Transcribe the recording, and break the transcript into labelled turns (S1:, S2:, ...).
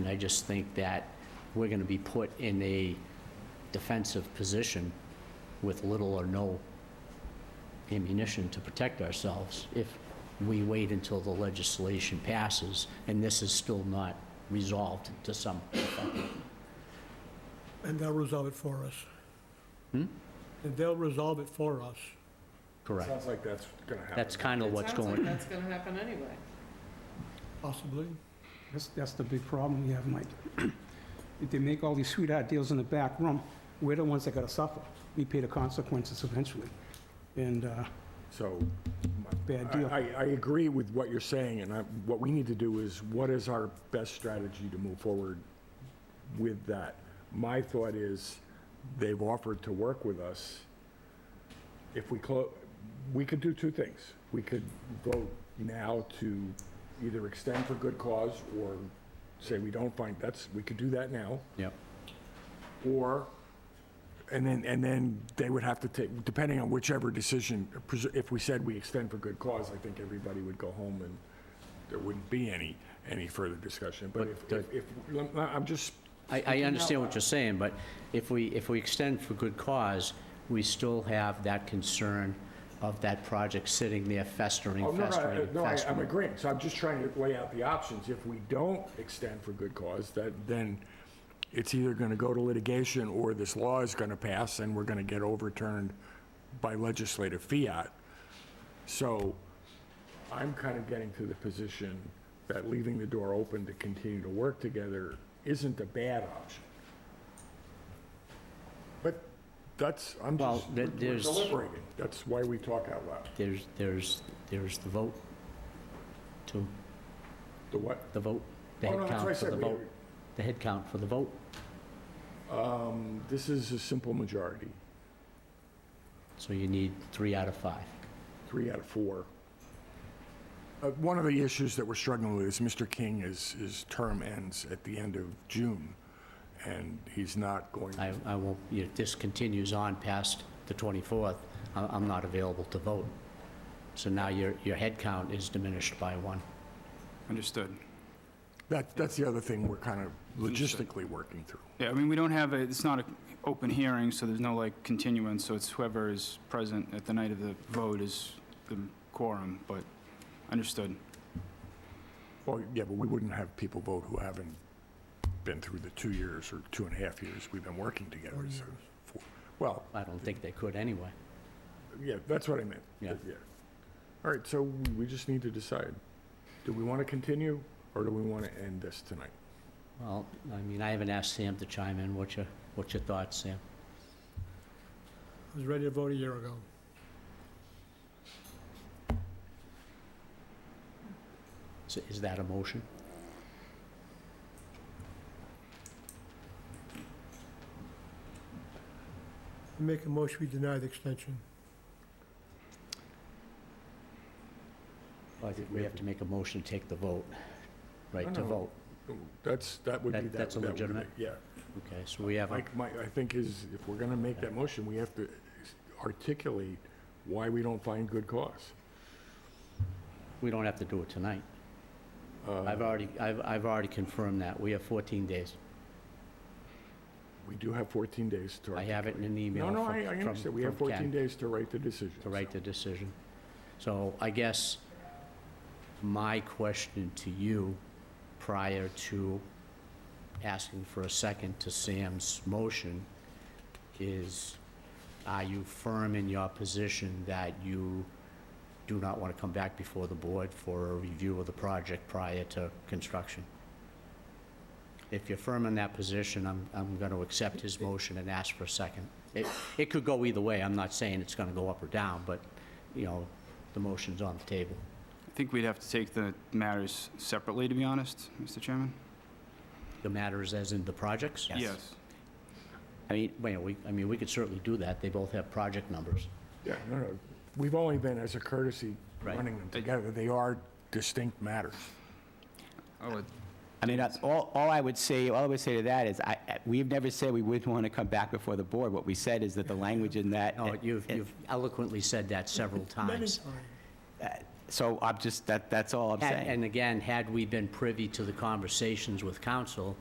S1: And I just think that we're going to be put in a defensive position with little or no ammunition to protect ourselves if we wait until the legislation passes, and this is still not resolved to some,
S2: And they'll resolve it for us.
S1: Hmm?
S2: And they'll resolve it for us.
S1: correct?
S3: Sounds like that's gonna happen.
S1: That's kind of what's
S4: It sounds
S1: going,
S4: like that's going to happen anyway.
S2: Possibly.
S5: That's, that's the big problem we have, Mike. If They make all these sweetheart deals in the back room. We're the ones that gotta suffer. We pay the consequences eventually. And, uh,
S3: So.
S5: Bad
S3: I-
S5: deal.
S3: I, I agree with what you're saying, and I, what we need to do is, what is our best strategy to move forward with that? My thought is, they've offered to work with us. If we close, we could do two things. We could vote now to either extend for good cause or say we don't find, that's, we could do that now.
S1: yep,
S3: Or, and then, and then they would have to take, depending on whichever decision, presu- if we said we extend for good cause, I think everybody would go home and there wouldn't be any, any further discussion. But if,
S1: But, uh,
S3: if, if- lem- I'm just,
S1: I, I understand what you're saying, but if we, if we extend for good cause, we still have that concern of that project sitting there
S3: oh,
S1: festering,
S3: no, no, I-
S1: festering,
S3: no, I- I'm
S1: festering.
S3: agreeing. So I'm just trying to lay out the options. If we don't extend for good cause, that, then it's either going to go to litigation or this law is going to pass and we're going to get overturned by legislative fiat. So I'm kind of getting to the position that leaving the door open to continue to work together isn't a bad option. But that's, I'm
S1: Well,
S3: just,
S1: there-
S3: we're we're
S1: there's-
S3: deliberating. That's why we talk out loud.
S1: There's, there's, there's the vote to,
S3: The what?
S1: the vote, the
S3: Oh,
S1: head
S3: no, that's what I
S1: count for
S3: said.
S1: the
S3: We-
S1: vote, the head count for the vote.
S3: Um, this is a simple majority,
S1: So you need three out of five.
S3: three out of four. Uh, one of the issues that we're struggling with is Mr. King is, his term ends at the end of June, and he's not going.
S1: I, I won't, you know, if this continues on past the 24th, I- I'm not available to vote. So now your, your head count is diminished by one.
S6: Understood.
S3: That, that's the other thing we're kind of logistically working through.
S6: Yeah, I mean, we don't have, a it's not an open hearing, so there's no like continuance, so it's whoever is present at the night of the vote is the quorum, but understood.
S3: Well, yeah, but we wouldn't have people vote who haven't been through the two years or two and a half years we've been working together. so four- Well,
S1: I don't think they could anyway.
S3: yeah, that's what I meant.
S1: Yeah.
S3: All right, so we just need to decide, do we want to continue or do we want to end this tonight?
S1: Well, I mean, I haven't asked Sam to chime in. What's your, what's your thoughts, Sam?
S2: I was ready to vote a year ago.
S1: Is- Is that a motion?
S2: I Make a motion, we deny the extension.
S1: Well, I think we have to make a motion to take the vote, right, to
S3: No, no.
S1: vote.
S3: That's, that would be.
S1: That-
S3: that-
S1: that's a
S3: that would be-
S1: legitimate-
S3: Yeah.
S1: Okay, so we have, a-
S3: Mike, Mike, I think is, if we're going to make that motion, we have to articulate why we don't find good cause.
S1: we don't have to do it tonight.
S3: Uh,
S1: I've already, I've, I've already confirmed that. We have 14 days.
S3: We do have 14 days to.
S1: I have it in an email
S3: No,
S1: from
S3: no,
S1: from
S3: I, I understand. We have
S1: from Ken
S3: 14 days to write the decision.
S1: To write the decision. So I guess my question to you, prior to asking for a second to Sam's motion, is are you firm in your position that you do not want to come back before the board for a review of the project prior to construction? If you're firm in that position, I'm, I'm going to accept his motion and ask for a second. It, it could go either way. I'm not saying it's going to go up or down, but, you know, the motion's on the table.
S6: I think we'd have to take the matters separately, to be honest, Mr. Chairman?
S1: The matter is as in the projects?
S6: Yes.
S1: I mean, well, we, I mean, we could certainly do that. They both have project numbers.
S3: Yeah, no, no. We've only been, as a courtesy,
S1: Right.
S3: running them together. They are distinct matters.
S6: Oh, it-
S7: I mean, that's all, all I would say, all I would say to that is, I, I- we've never said we wouldn't want to come back before the board. What we said is that the language in that.
S1: No, you've you've eloquently said that several
S2: Many
S1: times.
S2: times.
S7: So I'm just, that, that's all
S1: And-
S7: I'm saying.
S1: And again, had we been privy to the conversations with council,